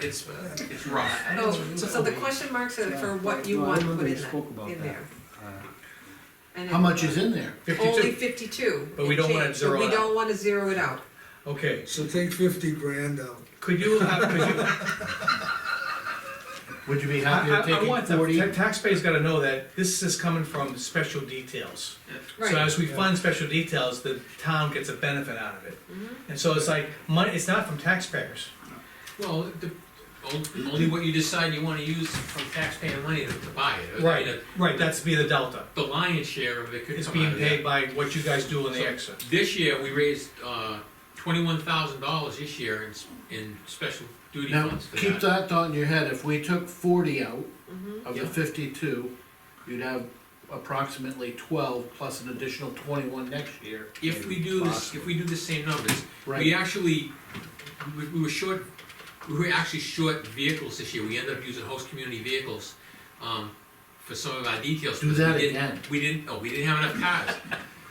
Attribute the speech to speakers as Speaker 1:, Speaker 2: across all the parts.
Speaker 1: It's, uh, it's rough.
Speaker 2: Oh,
Speaker 3: It's-
Speaker 2: so the question marks are for what you
Speaker 3: No, I
Speaker 2: want
Speaker 3: remember
Speaker 2: put
Speaker 3: we
Speaker 2: in that,
Speaker 3: spoke about
Speaker 2: in
Speaker 3: that.
Speaker 2: there.
Speaker 3: Uh,
Speaker 2: And
Speaker 4: How
Speaker 2: it-
Speaker 4: much is in there?
Speaker 2: Only
Speaker 1: Fifty-two,
Speaker 2: fifty-two.
Speaker 1: But we
Speaker 2: and
Speaker 1: don't wanna
Speaker 2: change,
Speaker 1: zero
Speaker 2: But
Speaker 1: it
Speaker 2: we
Speaker 1: out.
Speaker 2: don't wanna zero it out.
Speaker 1: okay,
Speaker 5: So take fifty grand out.
Speaker 1: could you, have- could you,
Speaker 4: Would you be
Speaker 1: I,
Speaker 4: happy with
Speaker 1: I- I
Speaker 4: taking
Speaker 1: want the,
Speaker 4: forty?
Speaker 1: ta- taxpayers gotta know that this is coming from special details. So
Speaker 2: Right.
Speaker 1: as we fund special details, the town gets a benefit out of it.
Speaker 2: Mm-hmm.
Speaker 1: And so it's like, money, it's not from taxpayers.
Speaker 6: Well, the, only- only what you decide you wanna use from taxpayer money to, to buy it. I mean, the-
Speaker 1: Right, that's be the delta.
Speaker 6: The lion's share of it could
Speaker 1: It's
Speaker 6: come out
Speaker 1: being
Speaker 6: of that.
Speaker 1: paid by what you guys do in the exit.
Speaker 6: This year, we raised, uh, twenty-one thousand dollars this year in, s- in special duty
Speaker 4: Now,
Speaker 6: funds for that.
Speaker 4: keep that thought in your head, if we took forty out of the
Speaker 6: Yeah.
Speaker 4: fifty-two, you'd have approximately twelve plus an additional twenty-one next year.
Speaker 6: If we do this, if we do the same numbers, we
Speaker 4: Right.
Speaker 6: actually, we, we were short, we were actually short vehicles this year, we ended up using host community vehicles, um, for some of our details.
Speaker 4: Do
Speaker 6: because we
Speaker 4: that
Speaker 6: didn't-
Speaker 4: again.
Speaker 6: We didn't, no, we didn't have enough cars,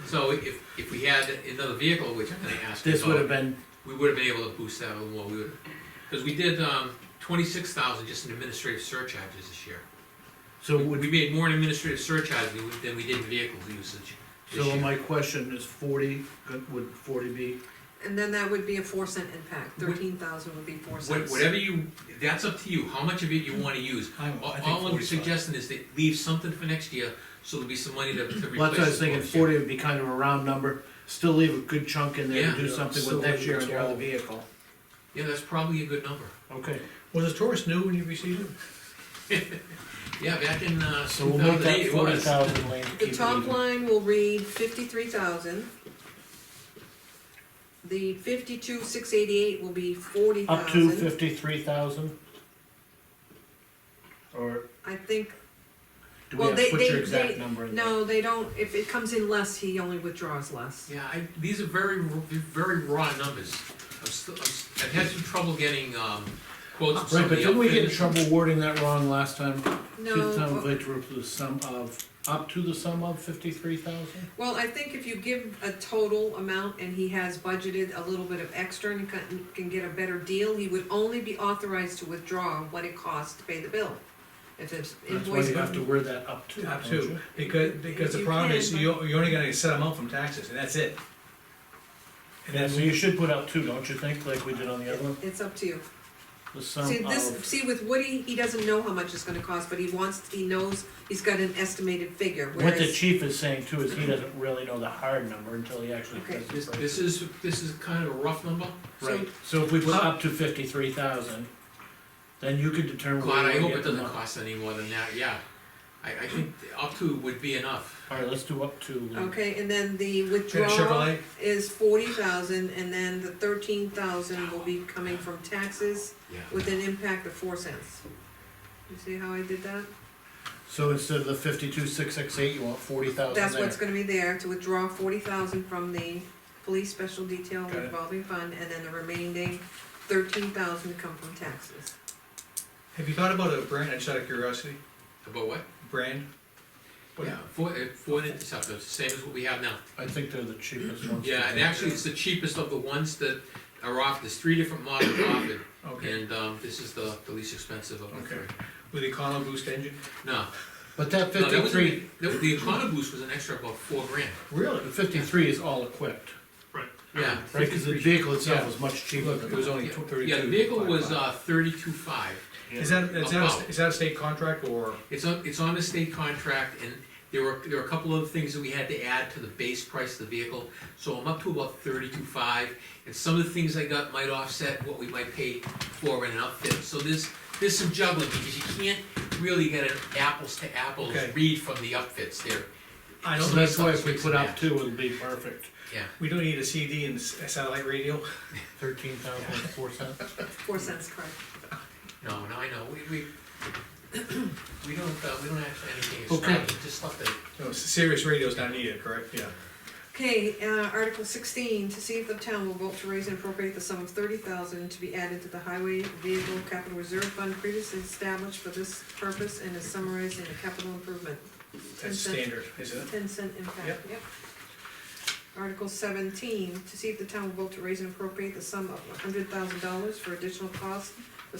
Speaker 6: so if, if we had another vehicle, which I'm gonna ask you
Speaker 4: This would have
Speaker 6: about,
Speaker 4: been,
Speaker 6: we would have been able to boost that a little more, we would, cause we did, um, twenty-six thousand just in administrative surcharges this year.
Speaker 4: so would,
Speaker 6: We made more in administrative surcharges than we- than we did in vehicle usage this
Speaker 4: so
Speaker 6: year.
Speaker 4: my question is forty, uh, would forty be?
Speaker 2: And then that would be a four cent impact, thirteen thousand would be four
Speaker 6: Wha-
Speaker 2: cents.
Speaker 6: Whatever you, that's up to you, how much of it
Speaker 4: Hmm.
Speaker 6: you wanna use.
Speaker 1: I- I think
Speaker 6: All all I'm
Speaker 1: 45.
Speaker 6: suggesting is that leave something for next year, so there'll be some money to, to replace.
Speaker 4: Well, that's what I was
Speaker 6: the
Speaker 4: thinking,
Speaker 6: books, yeah.
Speaker 4: forty would be kind of a round number, still leave a good chunk in there
Speaker 6: Yeah.
Speaker 4: to do
Speaker 5: Yeah,
Speaker 4: something
Speaker 5: still
Speaker 4: with next
Speaker 5: leave
Speaker 4: year on your other
Speaker 5: 12.
Speaker 4: vehicle.
Speaker 6: Yeah, that's probably a good number.
Speaker 4: Okay,
Speaker 1: Was the Taurus new when you received it?
Speaker 6: Yeah, back in, uh,
Speaker 4: so
Speaker 6: two
Speaker 4: we'll make
Speaker 6: thousand eight,
Speaker 4: that
Speaker 6: it
Speaker 4: forty
Speaker 6: was.
Speaker 4: thousand, Lean, to keep
Speaker 2: The
Speaker 4: it
Speaker 2: top
Speaker 4: even.
Speaker 2: line will read fifty-three thousand. The fifty-two, six eighty-eight will be forty
Speaker 4: Up to
Speaker 2: thousand.
Speaker 4: fifty-three thousand? Or
Speaker 2: I think,
Speaker 4: do we
Speaker 2: well,
Speaker 4: have
Speaker 2: they,
Speaker 4: to put
Speaker 2: they,
Speaker 4: your exact
Speaker 2: they,
Speaker 4: number in there?
Speaker 2: no, they don't, if it comes in less, he only withdraws less.
Speaker 6: Yeah, I, these are very, r- very raw numbers. I'm still, I'm, s- I've had some trouble getting, um, quotes from some
Speaker 4: Right,
Speaker 6: of
Speaker 4: but
Speaker 6: the
Speaker 4: didn't we get in
Speaker 6: outfitters.
Speaker 4: trouble wording that wrong last time? To the town
Speaker 2: No,
Speaker 4: of Ledge, the sum of, up to the sum of fifty-three thousand?
Speaker 2: Well, I think if you give a total amount and he has budgeted a little bit of extra and can, can get a better deal, he would only be authorized to withdraw what it costs to pay the bill. If it's
Speaker 4: That's why
Speaker 2: invoice,
Speaker 4: you have to word that up to.
Speaker 1: Up
Speaker 4: don't
Speaker 1: to,
Speaker 4: you?
Speaker 1: because, because the
Speaker 2: You
Speaker 1: problem
Speaker 2: can,
Speaker 1: is,
Speaker 2: but-
Speaker 1: you're, you're only gonna set them out from taxes, and that's it. And
Speaker 4: Yeah,
Speaker 1: then
Speaker 4: so you should put up two, don't you think, like we did on the other one?
Speaker 2: it's up to you.
Speaker 4: The sum
Speaker 2: See, this,
Speaker 4: of,
Speaker 2: see with Woody, he doesn't know how much it's gonna cost, but he wants, he knows, he's got an estimated figure,
Speaker 4: what the
Speaker 2: whereas,
Speaker 4: chief is saying too is he doesn't really know the hard number until he actually
Speaker 2: Okay.
Speaker 4: does the
Speaker 6: This,
Speaker 4: break.
Speaker 6: this is, this is kind of a rough number.
Speaker 2: so,
Speaker 4: Right, so if we put up to fifty-three thousand, then you could determine.
Speaker 6: God,
Speaker 4: where
Speaker 6: I
Speaker 4: you
Speaker 6: hope
Speaker 4: get
Speaker 6: it
Speaker 4: the
Speaker 6: doesn't
Speaker 4: money.
Speaker 6: cost any more than that, yeah. I, I think up to would be enough.
Speaker 4: All right, let's do up to. uh,
Speaker 2: okay, and then the
Speaker 1: Get a
Speaker 2: withdrawal
Speaker 1: Chevrolet,
Speaker 2: is forty thousand, and then the thirteen thousand will be coming from taxes
Speaker 6: Yeah.
Speaker 2: with an impact of four cents. You see how I did that?
Speaker 4: So instead of the fifty-two, six, six, eight, you want forty thousand Oh, there?
Speaker 2: That's what's gonna be there, to withdraw forty thousand from the police special detail
Speaker 1: Got it.
Speaker 2: revolving fund, and then the remaining thirteen thousand to come from taxes.
Speaker 1: have you thought about a brand, just out of curiosity,
Speaker 6: About what?
Speaker 1: brand? What-
Speaker 6: Yeah, four, uh, four interceptors, same as what we have now.
Speaker 4: I think they're the cheapest ones.
Speaker 6: Yeah,
Speaker 4: to
Speaker 6: and
Speaker 4: do.
Speaker 6: actually, it's the cheapest of the ones that are off, there's three different models offered,
Speaker 1: Okay,
Speaker 6: and, um, this is the, the least expensive of the
Speaker 1: Okay.
Speaker 6: three.
Speaker 1: with the EconoBoost engine?
Speaker 6: No,
Speaker 4: But that
Speaker 6: no, that was,
Speaker 4: fifty-three,
Speaker 6: that- the EconoBoost was an extra about four grand.
Speaker 1: Really?
Speaker 4: the fifty-three is all equipped,
Speaker 6: Yeah.
Speaker 4: right, cause the
Speaker 6: 53.
Speaker 4: vehicle itself
Speaker 1: Yeah.
Speaker 4: was much cheaper
Speaker 1: Look,
Speaker 4: than
Speaker 1: it was
Speaker 4: that.
Speaker 1: only tw- thirty-two.
Speaker 6: Um, Yeah, the vehicle was,
Speaker 1: five-five.
Speaker 6: uh, thirty-two five.
Speaker 1: Is that, is that, a sta-
Speaker 6: About.
Speaker 1: is that a state contract, or?
Speaker 6: It's on, it's on a state contract, and there were, there were a couple of things that we had to add to the base price of the vehicle, so I'm up to about thirty-two five, and some of the things I got might offset what we might pay for an outfit, so there's, there's some juggling, because you can't really get an apples to apples
Speaker 1: Okay.
Speaker 6: read from the upfits there.
Speaker 1: I
Speaker 4: So
Speaker 1: don't,
Speaker 6: know.
Speaker 4: that's why if we put
Speaker 6: Yeah.
Speaker 4: up two, it'll be perfect,
Speaker 6: Yeah,
Speaker 1: we don't need a CD and s- a satellite radio?
Speaker 4: thirteen thousand four cents.
Speaker 2: Four cents, correct.
Speaker 6: no, no, I know, we, we, we don't, uh, we don't have anything
Speaker 4: Okay.
Speaker 6: extravagant, just stuff that
Speaker 1: No, s- Sirius radio's not needed, correct? Yeah.
Speaker 2: Okay, uh, Article sixteen, to see if the town will vote to raise and appropriate the sum of thirty thousand to be added to the highway vehicle capital reserve fund previously established for this purpose and is summarized in a capital improvement, Ten
Speaker 1: That's
Speaker 2: cent.
Speaker 1: standard, isn't it?
Speaker 2: ten cent impact, yep. Article seventeen, to see if the town will vote to raise and appropriate the sum of hundred thousand dollars for additional costs